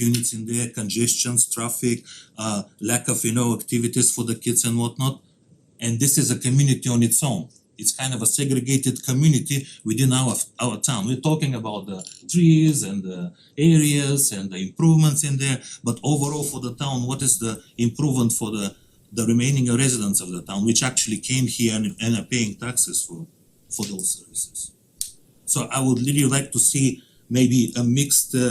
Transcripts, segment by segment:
units in there, congestions, traffic, uh lack of, you know, activities for the kids and whatnot. And this is a community on its own. It's kind of a segregated community within our our town. We're talking about the trees and the areas and the improvements in there. But overall for the town, what is the improvement for the the remaining residents of the town, which actually came here and and are paying taxes for for those services? So I would really like to see maybe a mixed uh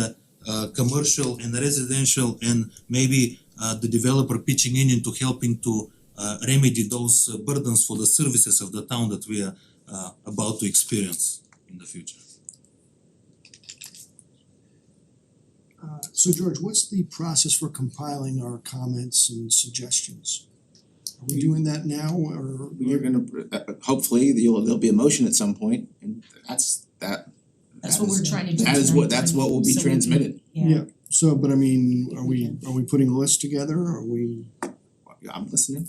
uh commercial and residential and maybe uh the developer pitching in into helping to uh remedy those uh, burdens for the services of the town that we are uh about to experience in the future. Uh so George, what's the process for compiling our comments and suggestions? Are we doing that now or You're gonna, uh, hopefully, you'll, there'll be a motion at some point, and that's that. That's that what is- we're trying to do. That is what, tonight, that's what will be so we- transmitted. Yeah, so, but I mean, are we are we putting a list together? Are we I'm listening.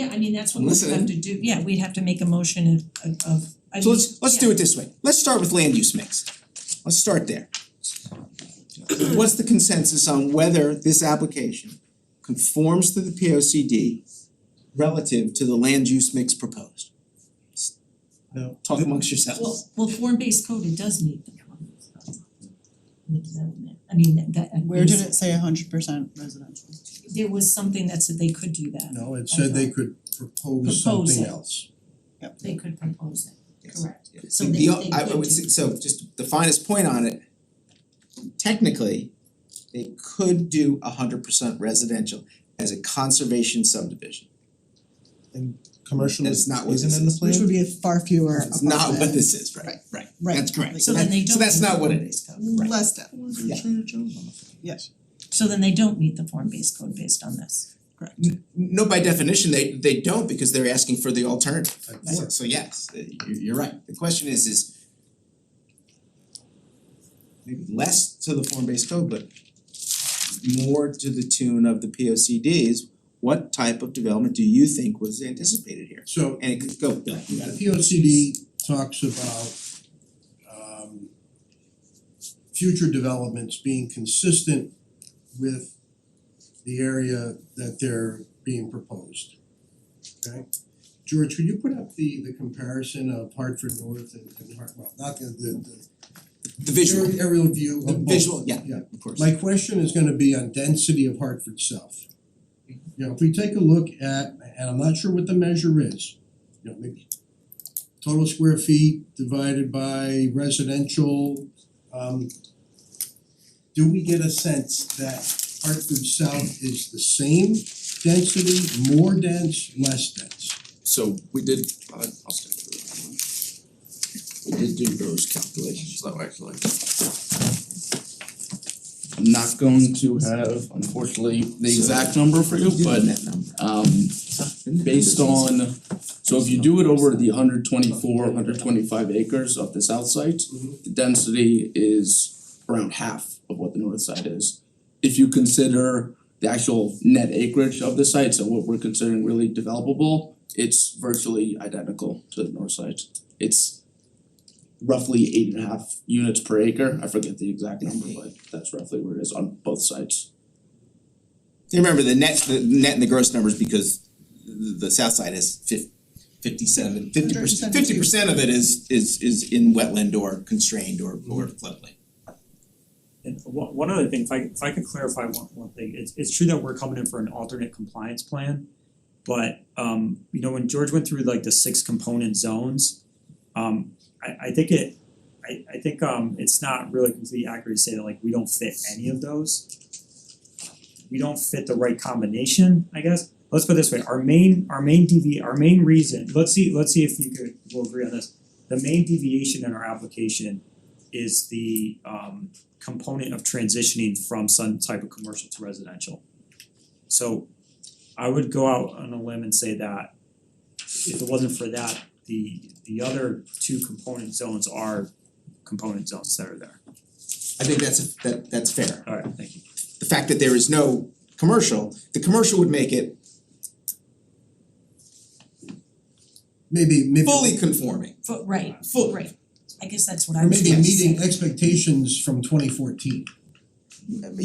yeah, I mean, that's what we would Listen. have to do, yeah, we'd have to make a motion of of of, I So mean, let's, let's yeah. do it this way. Let's start with land use mix. Let's start there. What's the consensus on whether this application conforms to the P O C D relative to the land use mix proposed? No. Talk amongst Well, yourselves. well, form-based code, it does meet the comments. The development, I mean, that that Where did it say hundred percent residential? There was something that said they could do that, No, it said they could propose Propose something it. else. they could propose it, Yes. correct, Yeah. So The- they- the- they I I could would do- say- so just the finest point on it, technically, they could do hundred percent residential as a conservation subdivision. Commercial That's is not what isn't in the this plan? Which would be a far fewer It's not what apartment, this is, right, right, Right. that's correct, so so then they that, don't so that's meet the not what it is. form-based code. Right. less than, Yeah. yes, So then they don't meet the form-based code based on this. correct. N- No, by definition, they they don't because they're asking for the alternative. That's So it. so yes, uh, you you're right. The question is is maybe less to the form-based code, but more to the tune of the P O C Ds, what type of development do you think was anticipated here? So And it could go, Bill, you got the it. P O C D talks about um future developments being consistent with the area that they're being proposed. Okay? George, could you put up the the comparison of Hartford North and and Hart, well, not the the the the visual, aerial- aerial view of the both. visual, yeah, Yeah. of course. My question is gonna be on density of Hartford South. You know, if we take a look at, and I'm not sure what the measure is, you know, maybe total square feet divided by residential, um do we get a sense that Hartford South is the same density, more dense, less dense? So we did, I I'll stay with it. We did do those calculations though, actually. I'm not going to have unfortunately the exact number for you, but that number. um based on, so if you do it over the hundred twenty four, hundred twenty five acres of the south side, Mhm. the density is around half of what the north side is. If you consider the actual net acreage of the site, so what we're considering really developable, it's virtually identical to the north side. It's roughly eight and a half units per acre, I forget the exact number, but that's roughly where it is on both sides. You remember the net, the net and the gross numbers because the the south side is fif- fifty-seven, fifty percent, 172. fifty percent of it is is is in wetland or constrained or or floodplain. And one one other thing, if I if I could clarify one one thing, it's it's true that we're coming in for an alternate compliance plan. But um you know, when George went through like the six component zones, um I I think it I I think um it's not really completely accurate to say that like we don't fit any of those. We don't fit the right combination, I guess. Let's put it this way, our main our main DV, our main reason, let's see, let's see if you could, we'll agree on this. The main deviation in our application is the um component of transitioning from some type of commercial to residential. So I would go out on a limb and say that if it wasn't for that, the the other two component zones are component zones that are there. I think that's that that's fair. Alright, thank you. The fact that there is no commercial, the commercial would make it Maybe maybe fully conforming. But right, Full. right, I guess that's what I Or was maybe trying to say. meeting expectations from twenty fourteen. you